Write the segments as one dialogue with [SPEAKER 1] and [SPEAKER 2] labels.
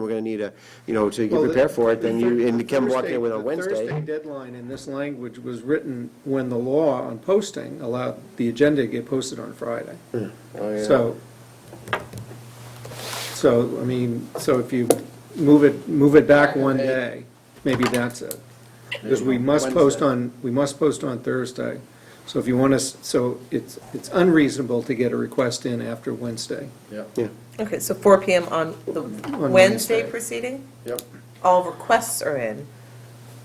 [SPEAKER 1] we're gonna need a, you know, to
[SPEAKER 2] Well,
[SPEAKER 1] get
[SPEAKER 2] the-
[SPEAKER 1] prepared for it, then
[SPEAKER 2] the
[SPEAKER 1] you,
[SPEAKER 2] Thur-
[SPEAKER 1] and Kim walked in with on
[SPEAKER 2] Thursday- the Thursday
[SPEAKER 1] Wednesday.
[SPEAKER 2] deadline in this language was written when the law on posting allowed the agenda to get posted on Friday.
[SPEAKER 1] Oh, yeah.
[SPEAKER 2] So, so, I mean, so if you move it, move it back one day, maybe that's it. Because we must post
[SPEAKER 1] Wednesday.
[SPEAKER 2] on, we must post on Thursday. So if you want us, so it's, it's unreasonable to get a request in after Wednesday.
[SPEAKER 3] Yep,
[SPEAKER 1] Yeah,
[SPEAKER 4] Okay, so 4 PM on the Wednesday
[SPEAKER 2] Wednesday.
[SPEAKER 4] proceeding?
[SPEAKER 3] yep.
[SPEAKER 4] All requests are in.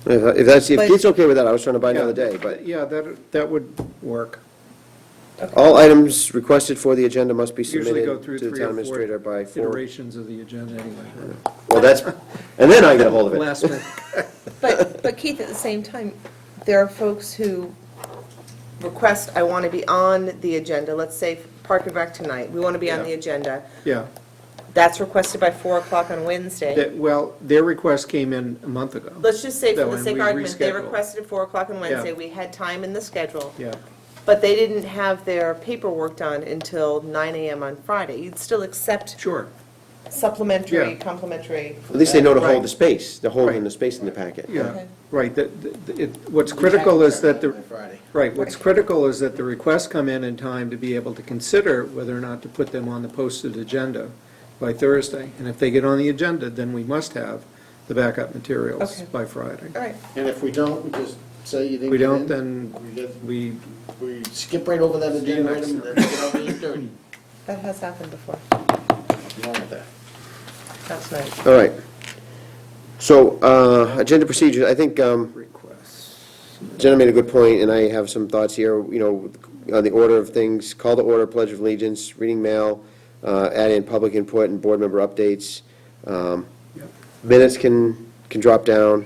[SPEAKER 1] if if that's, if
[SPEAKER 4] But-
[SPEAKER 1] it's okay with that, I was trying to buy another day, but
[SPEAKER 2] Yeah, that, that would work.
[SPEAKER 1] all items requested for the agenda must be
[SPEAKER 2] Usually go
[SPEAKER 1] submitted
[SPEAKER 2] through
[SPEAKER 1] to the
[SPEAKER 2] three
[SPEAKER 1] town
[SPEAKER 2] or four
[SPEAKER 1] administrator by four.
[SPEAKER 2] iterations of the agenda anyway.
[SPEAKER 1] Well, that's, and then I get a hold of it.
[SPEAKER 2] Last minute.
[SPEAKER 4] But, but Keith, at the same time, there are folks who request, I want to be on the agenda, let's say Park and Rec tonight, we want to be on the
[SPEAKER 2] Yeah.
[SPEAKER 4] agenda.
[SPEAKER 2] Yeah,
[SPEAKER 4] That's requested by 4 o'clock on Wednesday.
[SPEAKER 2] That- well, their request came in a month ago.
[SPEAKER 4] Let's just say for
[SPEAKER 2] That
[SPEAKER 4] the
[SPEAKER 2] one
[SPEAKER 4] sake
[SPEAKER 2] we
[SPEAKER 4] of argument, they
[SPEAKER 2] rescheduled.
[SPEAKER 4] requested at 4 o'clock on Wednesday,
[SPEAKER 2] Yeah.
[SPEAKER 4] we had time in the schedule.
[SPEAKER 2] Yeah,
[SPEAKER 4] But they didn't have their paperwork done until 9 AM on Friday. You'd still accept
[SPEAKER 2] sure,
[SPEAKER 4] supplementary,
[SPEAKER 2] Yeah.
[SPEAKER 4] complimentary.
[SPEAKER 1] At least they know to hold the
[SPEAKER 2] Right.
[SPEAKER 1] space, they're holding
[SPEAKER 2] Right.
[SPEAKER 1] the space in the packet.
[SPEAKER 2] yeah,
[SPEAKER 4] Okay.
[SPEAKER 2] right, that, that- it, what's critical is that the,
[SPEAKER 3] By Friday.
[SPEAKER 2] right, what's critical is that the requests come in in time to be able to consider whether or not to put them on the posted agenda by Thursday. And if they get on the agenda, then we must have the backup materials
[SPEAKER 4] Okay.
[SPEAKER 2] by Friday.
[SPEAKER 4] All right.
[SPEAKER 3] And if we don't, we just say you didn't
[SPEAKER 2] We
[SPEAKER 3] get in.
[SPEAKER 2] don't, then
[SPEAKER 3] we get-
[SPEAKER 2] We,
[SPEAKER 3] We skip right over that agenda
[SPEAKER 2] next
[SPEAKER 3] item, and then we get on to eight thirty.
[SPEAKER 4] That has happened before.
[SPEAKER 3] Wrong with that.
[SPEAKER 4] That's nice.
[SPEAKER 1] All right. So, uh, agenda procedures, I think, um,
[SPEAKER 2] requests,
[SPEAKER 1] Jenna made a good point, and I have some thoughts here, you know, on the order of things, call to order, pledge of allegiance, reading mail, uh, add in public input and board member updates. Um,
[SPEAKER 2] Yep.
[SPEAKER 1] Minutes can, can drop down,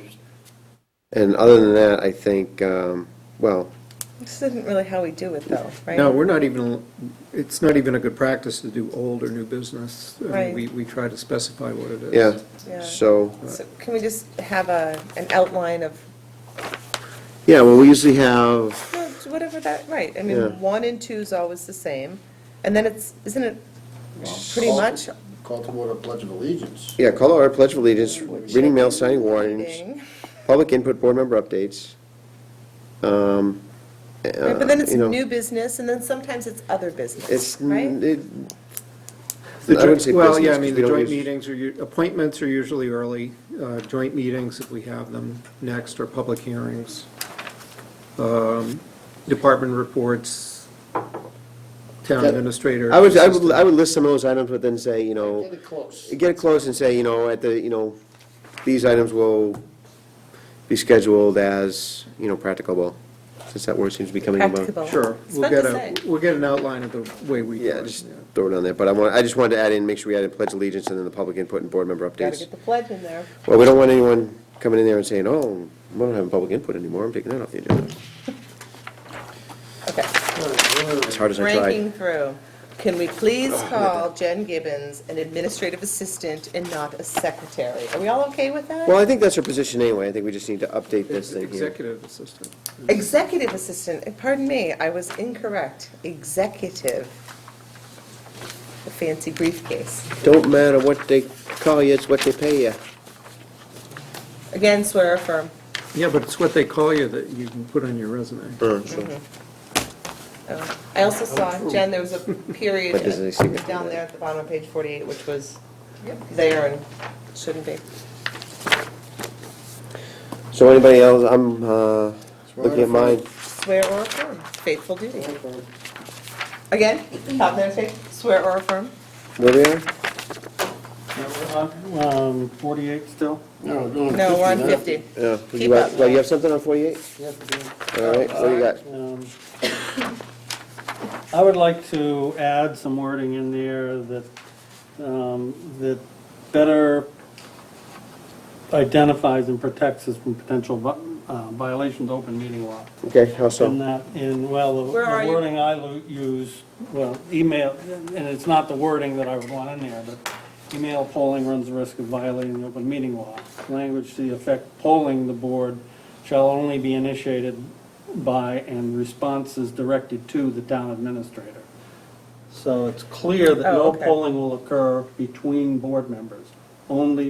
[SPEAKER 1] and other than that, I think, um, well,
[SPEAKER 4] This isn't really how we do it, though, right?
[SPEAKER 2] No, we're not even, it's not even a good practice to do old or new business. I mean,
[SPEAKER 4] Right.
[SPEAKER 2] We, we try to specify what it is.
[SPEAKER 1] yeah,
[SPEAKER 4] Yeah.
[SPEAKER 1] so,
[SPEAKER 4] So Can we just have a, an outline of,
[SPEAKER 1] yeah, well, we usually have,
[SPEAKER 4] no, it's whatever that, right, I
[SPEAKER 1] Yeah.
[SPEAKER 4] mean, one and two is always the same, and then it's, isn't it pretty
[SPEAKER 3] Call-
[SPEAKER 4] much?
[SPEAKER 3] Call to order Pledge of Allegiance.
[SPEAKER 1] yeah, call to order, pledge of allegiance, reading mail, signing warnings,
[SPEAKER 4] reading?
[SPEAKER 1] public input, board member updates. Um,
[SPEAKER 4] Right, But then
[SPEAKER 1] uh,
[SPEAKER 4] it's
[SPEAKER 1] you know,
[SPEAKER 4] new business, and then sometimes it's other business,
[SPEAKER 1] It's, n-
[SPEAKER 4] right?
[SPEAKER 1] it, I
[SPEAKER 2] The
[SPEAKER 1] would
[SPEAKER 2] joint-
[SPEAKER 1] say
[SPEAKER 2] Well, yeah,
[SPEAKER 1] business,
[SPEAKER 2] I mean,
[SPEAKER 1] 'cause we
[SPEAKER 2] the
[SPEAKER 1] don't
[SPEAKER 2] joint
[SPEAKER 1] use-
[SPEAKER 2] meetings are, u- appointments are usually early. Uh, Joint meetings, if we have them, next are public hearings. Um, Department reports, town
[SPEAKER 1] Yeah.
[SPEAKER 2] administrator.
[SPEAKER 1] I would, I would, I would list some of those items, but then say, you know,
[SPEAKER 3] Get it close.
[SPEAKER 1] get close and say, you know, at the, you know, these items will be scheduled as, you know, practicable, since that word seems to be coming about.
[SPEAKER 4] Practicable.
[SPEAKER 2] Sure,
[SPEAKER 4] It's
[SPEAKER 2] we'll
[SPEAKER 4] fun to
[SPEAKER 2] get a,
[SPEAKER 4] say.
[SPEAKER 2] we'll get an outline of the way we. do
[SPEAKER 1] Yeah,
[SPEAKER 2] it,
[SPEAKER 1] just
[SPEAKER 2] yeah.
[SPEAKER 1] throw it on there, but I want, I just wanted to add in, make sure we added pledge allegiance and then the public input and board member
[SPEAKER 4] Gotta
[SPEAKER 1] updates.
[SPEAKER 4] get the pledge in there.
[SPEAKER 1] Well, we don't want anyone coming in there and saying, oh, we don't have public input anymore, I'm taking that off the agenda,
[SPEAKER 4] Okay.
[SPEAKER 1] as hard as I tried. Oh,
[SPEAKER 4] Ranking through. Can we please call Jen Gibbons an administrative assistant and not a secretary? Are we all okay with that?
[SPEAKER 1] Well, I think that's her position anyway, I think we just need to update this
[SPEAKER 2] It's
[SPEAKER 1] thing here.
[SPEAKER 2] Executive assistant.
[SPEAKER 4] Executive assistant, eh, pardon me, I was incorrect. Executive. The fancy briefcase.
[SPEAKER 1] Don't matter what they call you, it's what they pay you.
[SPEAKER 4] Again, swear affirm.
[SPEAKER 2] Yeah, but it's what they call you that you can put on your resume.
[SPEAKER 4] Oh, I also saw, Jen, there was a period
[SPEAKER 1] But does it seem to be
[SPEAKER 4] down
[SPEAKER 1] that?
[SPEAKER 4] there at the bottom of page 48, which was there and shouldn't be.
[SPEAKER 1] So anybody else, I'm, uh, looking at mine.
[SPEAKER 4] Swear or affirm, faithful duty. Again, top there, say, swear or affirm.
[SPEAKER 1] Where we are?
[SPEAKER 5] Um, 48 still?
[SPEAKER 3] No, we're
[SPEAKER 4] Mm, No, we're on
[SPEAKER 3] now.
[SPEAKER 4] 50.
[SPEAKER 1] Yeah.
[SPEAKER 4] Keep
[SPEAKER 1] You got-
[SPEAKER 4] up.
[SPEAKER 1] Well, you have something on forty-eight?
[SPEAKER 5] Yes, we
[SPEAKER 1] All right, what do you got?
[SPEAKER 5] do. Um, I would like to add some wording in there that, um, that better identifies and protects us from potential vi- uh, violations of open meeting law.
[SPEAKER 1] Okay, how so?
[SPEAKER 5] In that, in, well, the
[SPEAKER 4] Where are
[SPEAKER 5] the
[SPEAKER 4] you?
[SPEAKER 5] wording I lo- use, well, email, and it's not the wording that I would want in there, but email polling runs the risk of violating the open meeting law. Language to the effect polling the board shall only be initiated by and responses directed to the town administrator. So it's clear that
[SPEAKER 4] Oh,
[SPEAKER 5] no
[SPEAKER 4] okay.
[SPEAKER 5] polling will occur between board members, only